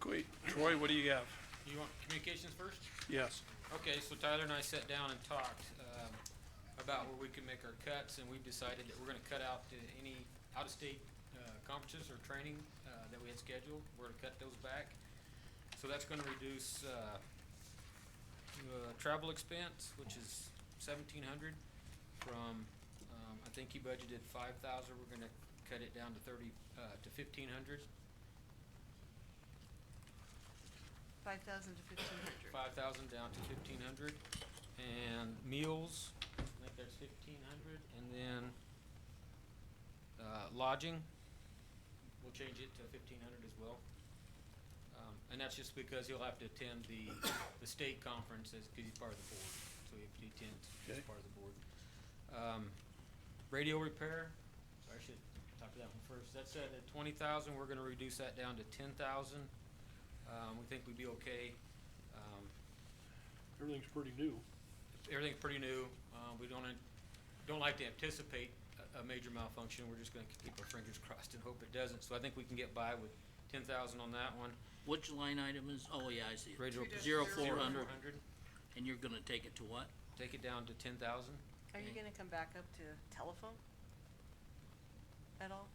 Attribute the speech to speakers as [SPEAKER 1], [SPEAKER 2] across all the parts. [SPEAKER 1] Okay, Troy, what do you have?
[SPEAKER 2] You want communications first?
[SPEAKER 1] Yes.
[SPEAKER 2] Okay, so Tyler and I sat down and talked, um, about where we could make our cuts, and we've decided that we're gonna cut out the, any out-of-state, uh, conferences or training, uh, that we had scheduled, we're gonna cut those back. So that's gonna reduce, uh, uh, travel expense, which is seventeen hundred, from, um, I think you budgeted five thousand, we're gonna cut it down to thirty, uh, to fifteen hundred.
[SPEAKER 3] Five thousand to fifteen hundred.
[SPEAKER 2] five thousand down to fifteen hundred, and meals, I think that's fifteen hundred, and then, uh, lodging, we'll change it to fifteen hundred as well. Um, and that's just because he'll have to attend the, the state conference as, cause he's part of the board, so he he attends, he's
[SPEAKER 1] Okay.
[SPEAKER 2] part of the board. Um, radio repair, sorry, I should talk to that one first, that's at twenty thousand, we're gonna reduce that down to ten thousand. Um, we think we'd be okay, um,
[SPEAKER 1] Everything's pretty new.
[SPEAKER 2] everything's pretty new. Uh, we don't, an- don't like to anticipate a, a major malfunction. We're just gonna keep our fingers crossed and hope it doesn't. So I think we can get by with ten thousand on that one.
[SPEAKER 4] Which line item is, oh yeah, I see it.
[SPEAKER 2] Radio-
[SPEAKER 3] Two
[SPEAKER 4] Zero
[SPEAKER 3] dash
[SPEAKER 4] four
[SPEAKER 2] Zero
[SPEAKER 4] hundred, and you're gonna take it to what?
[SPEAKER 2] Take it down to ten thousand.
[SPEAKER 3] Are you gonna come back up to telephone? At all?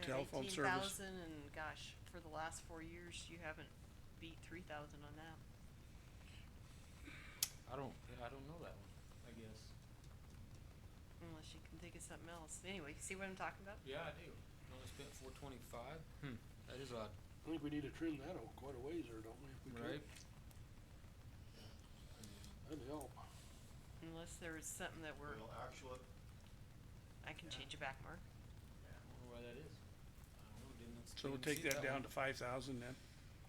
[SPEAKER 1] Telephone service.
[SPEAKER 3] Eighteen thousand and gosh, for the last four years, you haven't beat three thousand on that.
[SPEAKER 2] I don't, I don't know that one, I guess.
[SPEAKER 3] Unless you can think of something else. Anyway, see what I'm talking about?
[SPEAKER 2] Yeah, I do. Only spent four twenty-five. Hmm, that is odd,
[SPEAKER 5] I think we need to trim that out quite a ways there, don't we? if we could?
[SPEAKER 2] right?
[SPEAKER 5] That'd help.
[SPEAKER 3] Unless there is something that we're,
[SPEAKER 6] Well, actually,
[SPEAKER 3] I can change it back, Mark.
[SPEAKER 2] I wonder why that is. I don't know, didn't s-
[SPEAKER 1] So we'll
[SPEAKER 2] didn't
[SPEAKER 1] take
[SPEAKER 2] see
[SPEAKER 1] that down
[SPEAKER 2] one.
[SPEAKER 1] to five thousand then.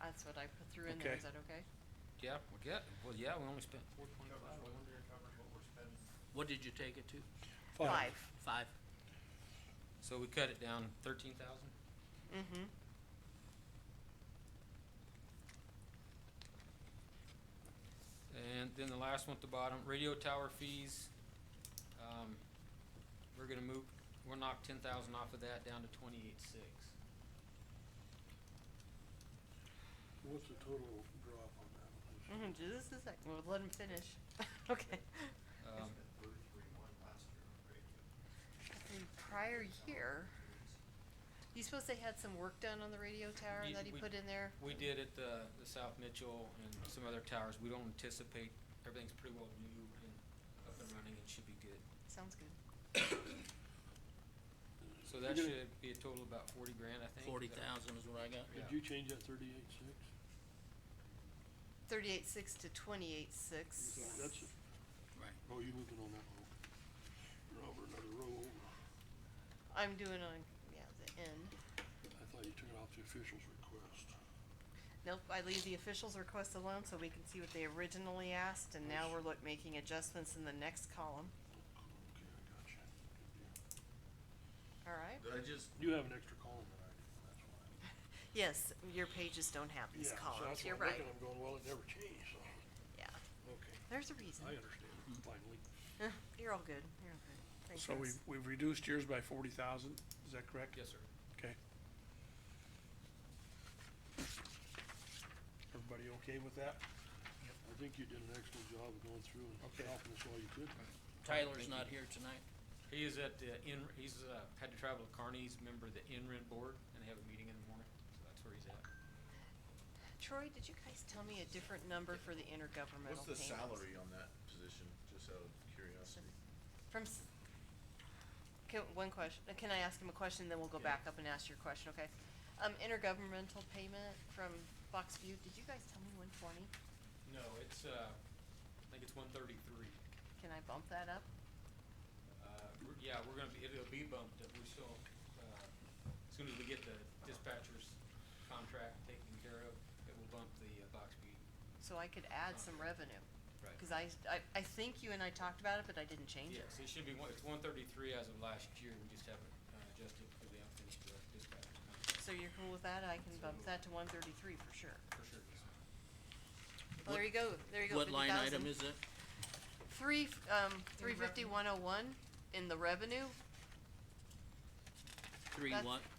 [SPEAKER 3] That's what I put through in there.
[SPEAKER 1] Okay.
[SPEAKER 3] Is that okay?
[SPEAKER 2] Yeah, we get, well, yeah, we only spent four
[SPEAKER 6] covers
[SPEAKER 2] twenty-five.
[SPEAKER 6] what we're, covers what we're spending.
[SPEAKER 4] What did you take it to? Five?
[SPEAKER 2] So we cut it down thirteen thousand?
[SPEAKER 3] Mm-hmm.
[SPEAKER 2] And then the last one at the bottom, radio tower fees. Um, we're gonna move, we'll knock ten thousand off of that down to twenty-eight six.
[SPEAKER 5] What's the total drop on that? one?
[SPEAKER 3] Mm-hmm. Just a sec. We'll let him finish. Okay.
[SPEAKER 2] Um,
[SPEAKER 6] We spent thirty-three one last year on radio.
[SPEAKER 3] In prior year, you supposed to had some work done on the radio tower
[SPEAKER 2] Ye-
[SPEAKER 3] that he
[SPEAKER 2] we-
[SPEAKER 3] put in there?
[SPEAKER 2] we did at the, the South Mitchell and some other towers. We don't anticipate, everything's pretty well new and up and running and should be good.
[SPEAKER 3] Sounds good.
[SPEAKER 2] So that
[SPEAKER 5] You're
[SPEAKER 2] should be a total of about forty grand, I think.
[SPEAKER 4] Forty
[SPEAKER 2] Is that-
[SPEAKER 4] thousand is what I got.
[SPEAKER 2] Yeah.
[SPEAKER 5] Did you change that thirty-eight six?
[SPEAKER 3] Thirty-eight six to twenty-eight six.
[SPEAKER 5] That's, it.
[SPEAKER 4] Right.
[SPEAKER 5] oh, you looking on that one? Robert, another row over.
[SPEAKER 3] I'm doing on, yeah, the end.
[SPEAKER 5] I thought you took it off the official's request.
[SPEAKER 3] Nope, I leave the officials' request alone so we can see what they originally asked, and now we're look, making adjustments in the next column.
[SPEAKER 5] Okay, I got you.
[SPEAKER 3] All right?
[SPEAKER 5] I just. You have an extra column than I do, that's why.
[SPEAKER 3] Yes, your pages don't have these
[SPEAKER 5] Yeah, so
[SPEAKER 3] columns,
[SPEAKER 5] that's
[SPEAKER 3] you're
[SPEAKER 5] what I'm
[SPEAKER 3] right.
[SPEAKER 5] looking, I'm going, well, it never changed, so,
[SPEAKER 3] Yeah,
[SPEAKER 5] okay,
[SPEAKER 3] there's a reason.
[SPEAKER 5] I understand, finally.
[SPEAKER 3] You're all good, you're all good. Thanks,
[SPEAKER 1] So
[SPEAKER 3] Russ.
[SPEAKER 1] we've, we've reduced yours by forty thousand, is that correct?
[SPEAKER 2] Yes, sir.
[SPEAKER 1] Okay. Everybody okay with that?
[SPEAKER 5] I think you did an excellent job of going through and
[SPEAKER 1] Okay.
[SPEAKER 5] helping us all you could.
[SPEAKER 4] Tyler's not here tonight.
[SPEAKER 2] He is at the in, he's, uh, had to travel to Kearney. He's a member of the NREN board and they have a meeting in the morning, so that's where he's at.
[SPEAKER 3] Troy, did you guys tell me a different number for the intergovernmental
[SPEAKER 6] What's the
[SPEAKER 3] payments?
[SPEAKER 6] salary on that position, just out of curiosity?
[SPEAKER 3] From, s- can, one question, uh, can I ask him a question, then we'll go
[SPEAKER 6] Yeah.
[SPEAKER 3] back up and ask your question, okay? Um, intergovernmental payment from Fox View, did you guys tell me one twenty?
[SPEAKER 2] No, it's, uh, I think it's one thirty-three.
[SPEAKER 3] Can I bump that up?
[SPEAKER 2] Uh, we're- yeah, we're gonna be, it'll be bumped up, we're still, uh, as soon as we get the dispatcher's contract taken care of, it will bump the uh, box speed.
[SPEAKER 3] So I could add some revenue,
[SPEAKER 2] Right.
[SPEAKER 3] cause I, I, I think you and I talked about it, but I didn't change it.
[SPEAKER 2] Yes, it should be one, it's one thirty-three as of last year, we just haven't uh, adjusted because we haven't finished the uh, dispatcher's contract,
[SPEAKER 3] So you're cool with that, I can bump that to one thirty-three for sure.
[SPEAKER 2] for sure.
[SPEAKER 3] Well, there you go, there you go,
[SPEAKER 4] What
[SPEAKER 3] fifty
[SPEAKER 4] line item
[SPEAKER 3] thousand.
[SPEAKER 4] is it?
[SPEAKER 3] Three, f- um, three fifty, one oh one in the revenue,
[SPEAKER 4] Three
[SPEAKER 3] That's-
[SPEAKER 4] what?